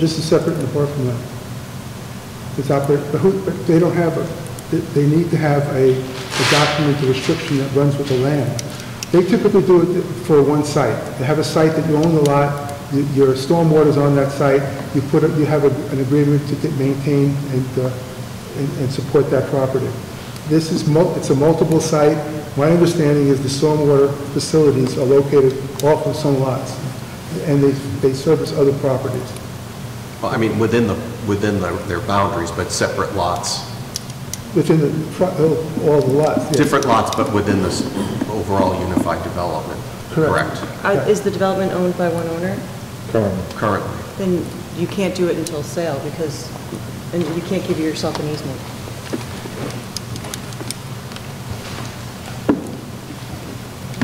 This is separate and apart from that. It's operate, but who, but they don't have, a. they- they need to have a, a document, a restriction that runs with the land. They typically do it for one site. They have a site that you own the lot, you- your stormwater's on that site, you put, a- you have a- an agreement to get- maintain and, uh, and- and support that property. This is, mul- it's a multiple site. My understanding is the stormwater facilities are located off of some lots, and they, they service other properties. Well, I mean, within the, within their their boundaries, but separate lots, Within the, pro- oh, all the lots, yeah. different lots, but within this overall unified development. Correct. Are- Uh, Is the development owned by one owner? Currently. Currently. Then you can't do it until sale because, and you can't give yourself an easement.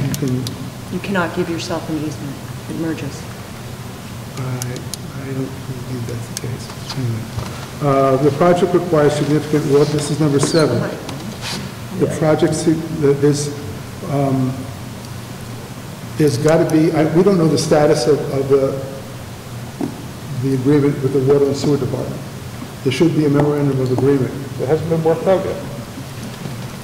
You can, You cannot give yourself an easement. It merges. I, I don't believe that's the case. Hang on. Uh, The project requires significant work, this is number seven. The project, se- the- there's, um, there's got to be, I- we don't know the status of, of the, the agreement with the Water and Sewer Department. There should be a memorandum of agreement. It hasn't been worked out yet.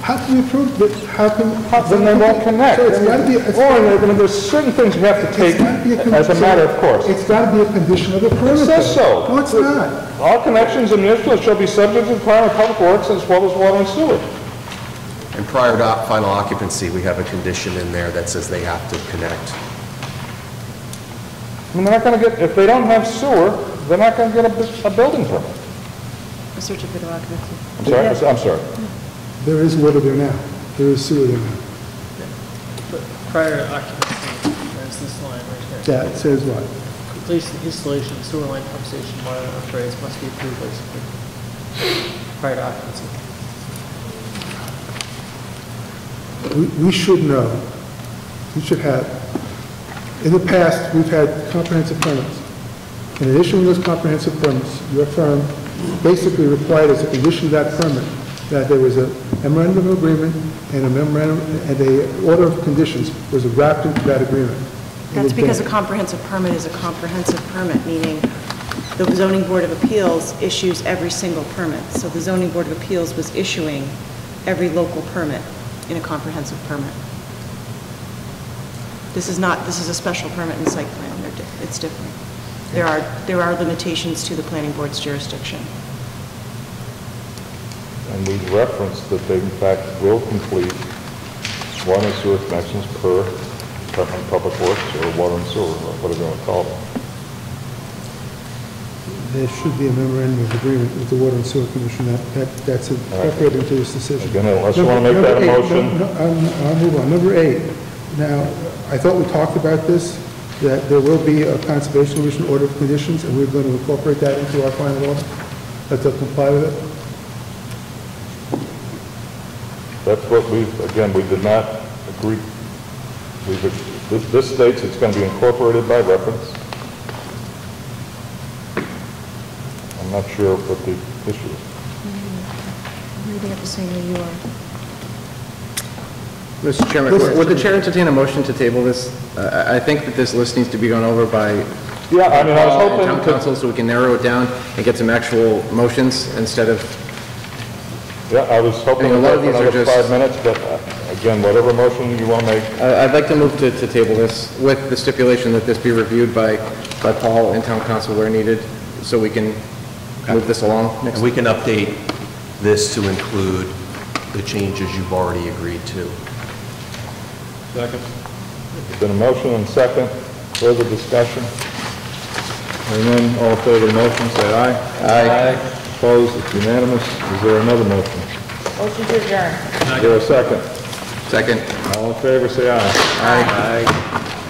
How can we prove that, how can? Then they won't connect. So it's got to be, it's Or, they're gonna- there's certain things we have to take It's gotta be con- as a matter of course. It's got to be a condition of the permit. It says though. so. No, it's not. All connections in municipal shall be subject to the requirement of public works as well as water and sewer. And prior to op- final occupancy, we have a condition in there that says they have to connect. I mean, they're not gonna get, if they don't have sewer, they're not gonna get a, bu- a building permit. A certificate of occupancy. I'm sorry, I'm s- I'm sorry. There is water there now. There is sewer there now. Prior occupancy, there's this line right here. That says what? Completion, installation, of sewer line pump station, water upgrades must be approved by Superior. Prior to occupancy. We we should know, we should have, in the past, we've had comprehensive permits. And in issuing those comprehensive permits, your firm basically required as a condition of that permit that there was a memorandum of agreement and a memorandum, and a order of conditions was wrapped into that agreement. That's because a comprehensive permit is a comprehensive permit, meaning the zoning board of appeals issues every single permit. So the zoning board of appeals was issuing every local permit in a comprehensive permit. This is not, this is a special permit and site plan, They're di- it's different. There are, there are limitations to the planning board's jurisdiction. And we referenced that they in fact will complete water and sewer connections per Department of Public Works or water and sewer, or whatever you wanna call it. There should be a memorandum of agreement with the Water and Sewer Commission, that, that that's incorporated into this decision. Again, unless you wanna make that a Number eight, motion. no, no, I'll I'll move on. Number eight, now, I thought we talked about this, that there will be a Conservation Commission order of conditions, and we're going to incorporate that into our final law, that they'll comply with it. That's what we, again, we did not agree, we, this this states it's going to be incorporated by reference. I'm not sure what the issue is. Reading it the same way you are. Mr. Chairman, Listen. would would the chair entertain a motion to table this? Uh, I I think that this list needs to be gone over by Yeah, I mean, I was Paul and town hoping to, council so we can narrow it down and get some actual motions instead of, yeah, I was hoping I to mean, a lot go of for these are another just- Uh, five minutes, but uh, again, whatever motion you want to make, I- I'd like to move to to table this with the stipulation that this be reviewed by by Paul and town council where needed, so we can move this along next And we can update this to include the changes you've already agreed to. it's been a motion and second, further discussion. And then all in favor of the motion, say aye. Aye. Opposed, it's unanimous. Is there another motion? Motion to adjourn. Is there a second? Second. All in favor, say aye. Aye.